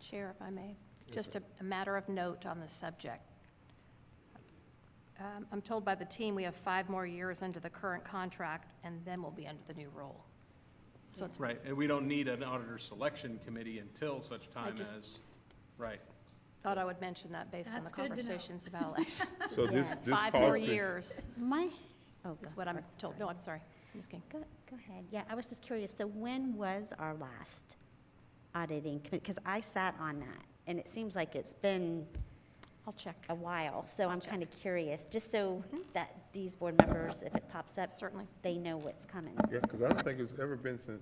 Chair, if I may, Yes, just sir. a a matter of note on this subject. Um, I'm told by the team we have five more years under the current contract, and then we'll be under the new rule. So it's, Right, and we don't need an auditor selection committee until such time just- as, right. thought I would mention that based on the That's good to know. conversations about election. So this, this Five more policy, years My, oh, go. is what I'm sorry, told. sorry. No, I'm sorry, Ms. King. Go, go ahead. Yeah, I was just curious. So when was our last auditing committee? Because I sat on that, and it seems like it's been I'll check. a while. So I'm Check. kind of curious, just so that these board members, if it pops up, Certainly. they know what's coming. yeah, because I don't think it's ever been since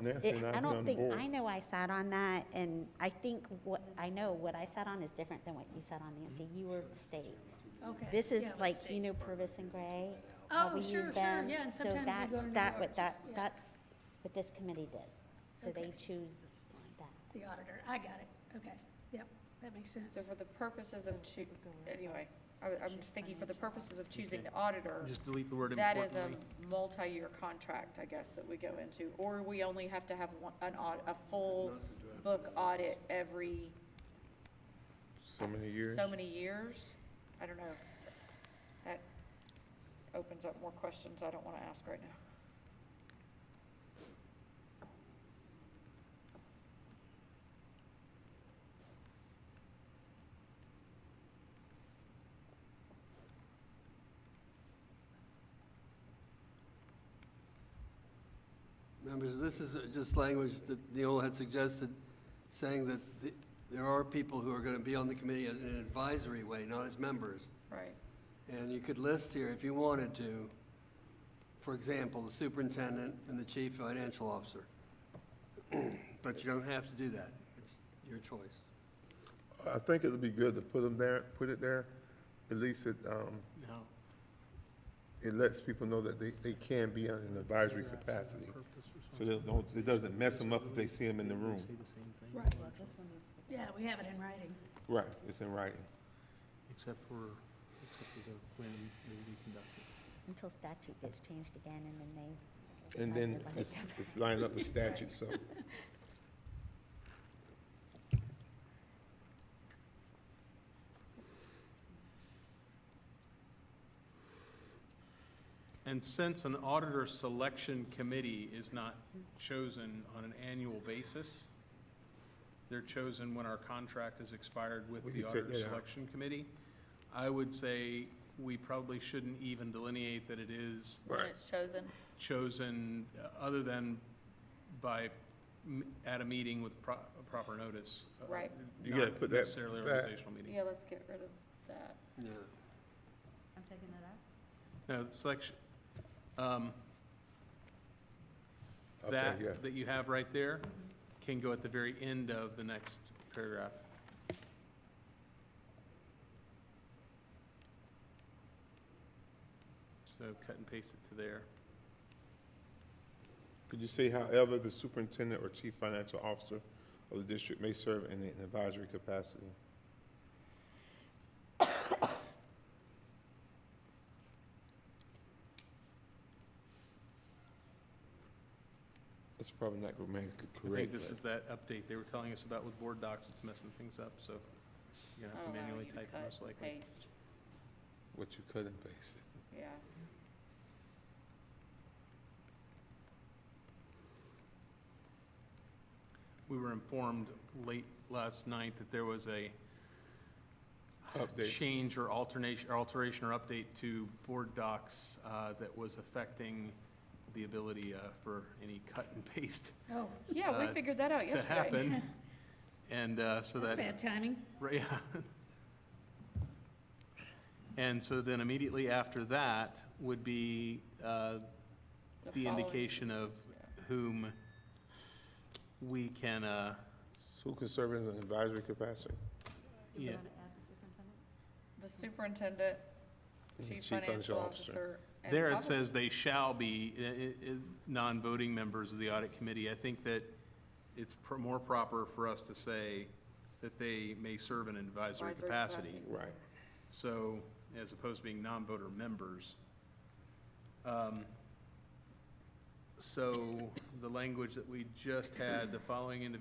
Nancy It- and I've I been don't on the think, board. I know I sat on that, and I think what, I know what I sat on is different than what you sat on, Nancy. You were the state. Okay. This is Yeah, the like, state. you know, Purvis and Gray. how Oh, we sure, use sure, them. yeah, and sometimes you go to So that's, that, the what that, arches, yeah. that's what this committee does. So they Okay. choose that. The auditor, I got it, okay, yep, that makes sense. So for the purposes of choo, anyway, I, I'm just thinking for the purposes of choosing the auditor, Just delete the word that is a importantly. multi-year contract, I guess, that we go into. Or we only have to have one, an audit, a full book audit every So many years. so many years. I don't know. That opens up more questions I don't wanna ask right now. Members, this is just language that Neil had suggested, saying that the- there are people who are going to be on the committee as in an advisory way, not as members. Right. And you could list here, if you wanted to, for example, the superintendent and the chief financial officer. But you don't have to do that. It's your choice. I think it'd be good to put them there, put it there. At least it, um, No. it lets people know that they, they can be on an advisory capacity. So they don't, it doesn't mess them up if they see them in the room. Right. Yeah, we have it in writing. Right, it's in writing. Except for, except for the, when it will be conducted. Until statute gets changed again, and then they. And then it's, it's lined up with statute, so. And since an auditor selection committee is not chosen on an annual basis, they're chosen when our contract is expired with We the could take auditor that out. selection committee. I would say we probably shouldn't even delineate that it is When Right. it's chosen. chosen, uh, other than by, m- at a meeting with pro- proper notice. uh, Right. You gotta not put that Necessarily back. organizational meeting. Yeah, let's get rid of that. Yeah. No, the selection, um, Okay, that, yeah. that you have right there can go at the very end of the next paragraph. So cut and paste it to there. Could you say however, the superintendent or chief financial officer of the district may serve in an advisory capacity? It's probably not grammatically I think correct. this but- is that update they were telling us about with board docs, it's messing things up, so you're gonna have to I'll allow manually Oh, you type cut, most likely. Paste, What you cut and pasted. yeah. We were informed late last night that there was a Update. change or alternation, or alteration or update to board docs uh, that was affecting the ability uh, for any cut and paste Oh, Yeah, we Uh, figured that out to yesterday. happen. And uh, so that's that, bad timing. right, yeah. And so then immediately after that would be uh, the following- indication of Yeah. whom we can, uh, Who can serve in an advisory capacity? yeah, The superintendent, chief financial officer. and There it probably- says they shall be i- i- i- non-voting members of the audit committee. I think that it's pr- more proper for us to say that they may serve in an advisory Advisory capacity. capacity. Right. So, as opposed to being non-voter members. Um, So, the language that we just had, the following individuals